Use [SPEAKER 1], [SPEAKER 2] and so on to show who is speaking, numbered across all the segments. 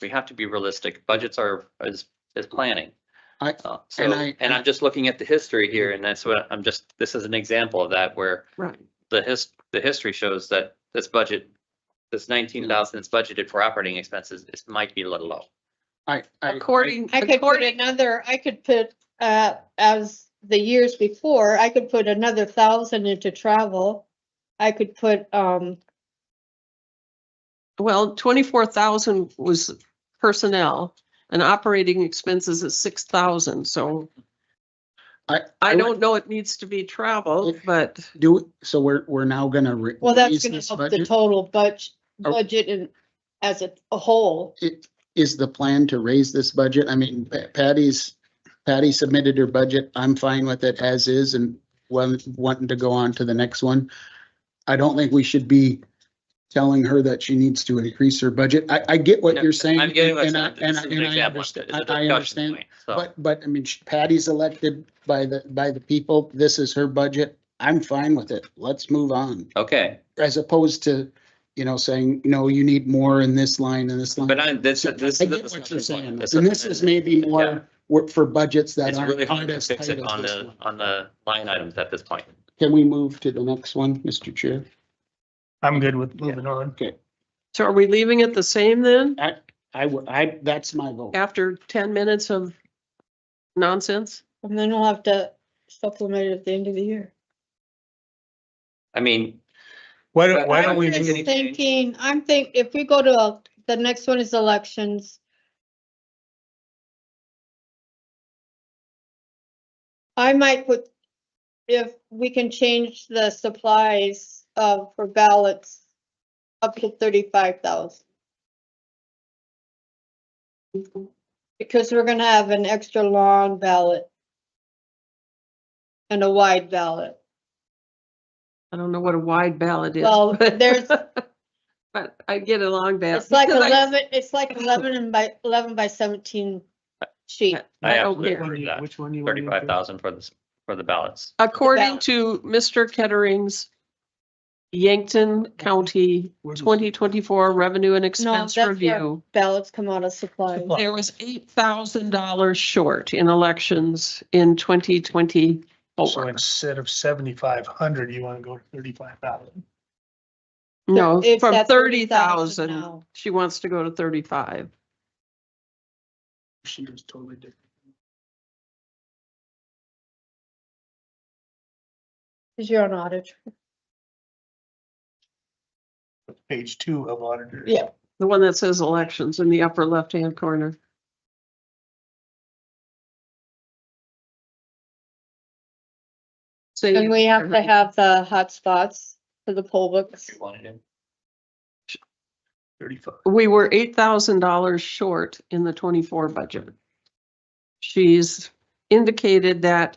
[SPEAKER 1] we have to be realistic. Budgets are, is, is planning.
[SPEAKER 2] I-
[SPEAKER 1] Uh, So,
[SPEAKER 2] and I-
[SPEAKER 1] and I'm just looking at the history here and that's what I'm just, this is an example of that where
[SPEAKER 3] Right.
[SPEAKER 1] the his, the history shows that this budget, this
[SPEAKER 2] Hmm.
[SPEAKER 1] nineteen thousand that's budgeted for operating expenses, it might be a little low.
[SPEAKER 2] I, I.
[SPEAKER 3] According,
[SPEAKER 4] I could put
[SPEAKER 3] according,
[SPEAKER 4] another, I could put, uh, as the years before, I could put another thousand into travel. I could put, um,
[SPEAKER 3] well, twenty-four thousand was personnel and operating expenses is six thousand, so.
[SPEAKER 2] I-
[SPEAKER 3] I
[SPEAKER 2] would-
[SPEAKER 3] don't know it needs to be traveled, but
[SPEAKER 2] Do, so we're, we're now gonna. re-
[SPEAKER 4] well,
[SPEAKER 2] raise
[SPEAKER 4] that's gonna
[SPEAKER 2] this
[SPEAKER 4] help the
[SPEAKER 2] budget?
[SPEAKER 4] total budget,
[SPEAKER 2] Oh.
[SPEAKER 4] budget and as a a whole.
[SPEAKER 2] It, is the plan to raise this budget? I mean, Pa- Patty's, Patty submitted her budget. I'm fine with it as is and one, wanting to go on to the next one. I don't think we should be telling her that she needs to increase her budget. I, I get what you're saying.
[SPEAKER 1] I'm getting what's,
[SPEAKER 2] and I-
[SPEAKER 1] this is
[SPEAKER 2] and I-
[SPEAKER 1] an
[SPEAKER 2] and I
[SPEAKER 1] example. It's a
[SPEAKER 2] understand- I- I
[SPEAKER 1] discussion
[SPEAKER 2] understand.
[SPEAKER 1] point, so.
[SPEAKER 2] But, but I mean, sh- Patty's elected by the, by the people. This is her budget. I'm fine with it. Let's move on.
[SPEAKER 1] Okay,
[SPEAKER 2] As opposed to, you know, saying, no, you need more in this line and this line.
[SPEAKER 1] but I, this,
[SPEAKER 2] So
[SPEAKER 1] this.
[SPEAKER 2] I
[SPEAKER 1] is a
[SPEAKER 2] get what you're
[SPEAKER 1] discussion point.
[SPEAKER 2] saying.
[SPEAKER 1] This
[SPEAKER 2] And this is maybe
[SPEAKER 1] Yeah.
[SPEAKER 2] more work for budgets that
[SPEAKER 1] It's really
[SPEAKER 2] aren't.
[SPEAKER 1] hard
[SPEAKER 2] aren't
[SPEAKER 1] to
[SPEAKER 2] as
[SPEAKER 1] fix
[SPEAKER 2] tight
[SPEAKER 1] it
[SPEAKER 2] as
[SPEAKER 1] on
[SPEAKER 2] this
[SPEAKER 1] the,
[SPEAKER 2] one.
[SPEAKER 1] on the line items at this point.
[SPEAKER 2] Can we move to the next one, Mr. Chair?
[SPEAKER 5] I'm good with moving on.
[SPEAKER 3] so are we leaving it the same then
[SPEAKER 2] I, I, would- I, that's my vote.
[SPEAKER 3] after ten minutes of nonsense?
[SPEAKER 4] And then I'll have to supplement it at the end of the year.
[SPEAKER 1] I mean,
[SPEAKER 5] Why don't, why
[SPEAKER 1] I
[SPEAKER 5] don't we,
[SPEAKER 1] think
[SPEAKER 5] do-
[SPEAKER 1] any
[SPEAKER 4] I'm
[SPEAKER 1] change?
[SPEAKER 4] Thinking, I'm think, if we go to, a- the next one is elections. I might put, if we can change the supplies of, for ballots up to thirty-five thousand. Because we're gonna have an extra long ballot. And a wide ballot.
[SPEAKER 3] I don't know what a wide ballot is.
[SPEAKER 4] Well,
[SPEAKER 3] but-
[SPEAKER 4] there's-
[SPEAKER 3] But I get a long ballot.
[SPEAKER 4] It's like
[SPEAKER 3] because I-
[SPEAKER 4] eleven, it's like eleven and by, eleven by seventeen sheet.
[SPEAKER 1] I
[SPEAKER 3] I don't
[SPEAKER 1] absolutely
[SPEAKER 3] care.
[SPEAKER 1] agree with that.
[SPEAKER 5] which one you want? me to do?
[SPEAKER 1] Thirty-five thousand for this, for the ballots.
[SPEAKER 3] According
[SPEAKER 4] ballot.
[SPEAKER 3] to Mr. Kettering's Yankton County
[SPEAKER 5] Where's the-
[SPEAKER 3] twenty twenty-four revenue and expense
[SPEAKER 4] that's where-
[SPEAKER 3] review,
[SPEAKER 4] Ballots come out of supply.
[SPEAKER 5] Supply.
[SPEAKER 3] there was eight thousand dollars short in elections in twenty
[SPEAKER 5] So
[SPEAKER 3] twenty-four.
[SPEAKER 5] Oh, instead of seventy-five hundred, you want to go to thirty-five thousand.
[SPEAKER 3] No,
[SPEAKER 4] It's
[SPEAKER 3] from
[SPEAKER 4] at
[SPEAKER 3] thirty
[SPEAKER 4] 30,000
[SPEAKER 3] thousand,
[SPEAKER 4] now.
[SPEAKER 3] she wants to go to thirty-five.
[SPEAKER 5] She was totally different.
[SPEAKER 4] Cause you're on audit.
[SPEAKER 5] Page two of auditor.
[SPEAKER 4] Yeah.
[SPEAKER 3] The one that says elections in the upper left-hand corner. So
[SPEAKER 4] And
[SPEAKER 3] you-
[SPEAKER 4] we have to have the hot spots for the poll books.
[SPEAKER 1] You wanted to-
[SPEAKER 5] Thirty-five.
[SPEAKER 3] we were eight thousand dollars short in the twenty-four budget. She's indicated that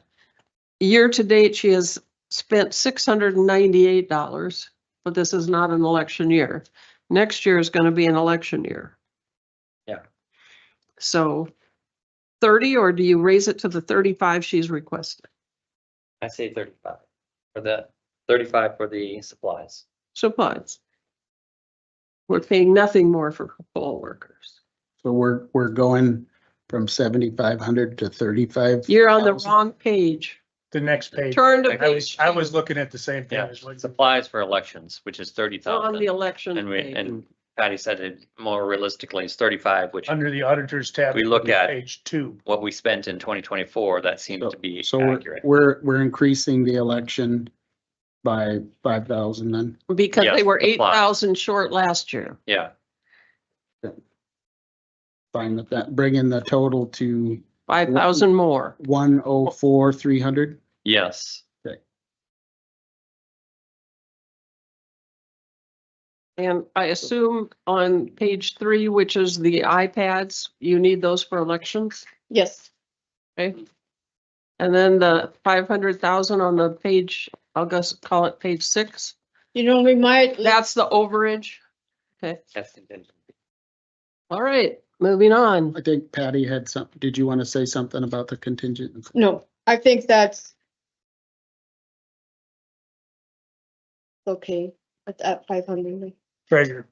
[SPEAKER 3] year-to-date, she has spent six hundred and ninety-eight dollars, but this is not an election year. Next year is gonna be an election year.
[SPEAKER 1] Yeah.
[SPEAKER 3] So thirty, or do you raise it to the thirty-five she's requested?
[SPEAKER 1] I say thirty-five for the, thirty-five for the supplies.
[SPEAKER 3] Supplies. We're paying nothing more for poll workers.
[SPEAKER 2] So we're, we're going from seventy-five hundred to thirty-five.
[SPEAKER 3] You're on the
[SPEAKER 2] 1,000.
[SPEAKER 3] wrong page.
[SPEAKER 5] The next page.
[SPEAKER 3] Turn to
[SPEAKER 1] I
[SPEAKER 5] I was,
[SPEAKER 3] page.
[SPEAKER 5] I was looking at the same thing.
[SPEAKER 1] Yeah.
[SPEAKER 5] as what you-
[SPEAKER 1] Supplies for elections, which is thirty
[SPEAKER 3] On the
[SPEAKER 1] thousand.
[SPEAKER 3] election.
[SPEAKER 1] And we,
[SPEAKER 3] day.
[SPEAKER 1] and Patty said it more realistically is thirty-five, which
[SPEAKER 5] Under the auditors tab.
[SPEAKER 1] We look at-
[SPEAKER 5] Page two.
[SPEAKER 1] what we spent in twenty twenty-four, that seems to be
[SPEAKER 2] So we're-
[SPEAKER 1] accurate.
[SPEAKER 2] we're, we're increasing the election by five thousand then.
[SPEAKER 3] Because
[SPEAKER 1] Yes,
[SPEAKER 3] they were
[SPEAKER 1] the
[SPEAKER 3] eight
[SPEAKER 1] plot.
[SPEAKER 3] thousand short last year.
[SPEAKER 1] Yeah,
[SPEAKER 2] Fine with that, bringing the total to
[SPEAKER 3] Five thousand more.
[SPEAKER 2] one oh four, three hundred.
[SPEAKER 1] yes.
[SPEAKER 3] And I assume on page three, which is the iPads, you need those for elections.
[SPEAKER 4] Yes,
[SPEAKER 3] And then the five hundred thousand on the page, I'll just call it page six.
[SPEAKER 4] you know, we might,
[SPEAKER 3] That's the overage.
[SPEAKER 1] That's contingent.
[SPEAKER 3] All right, moving on.
[SPEAKER 2] I think Patty had some, did you want to say something about the contingent?
[SPEAKER 4] no, I think that's okay, at, at five hundred.
[SPEAKER 5] Treasure.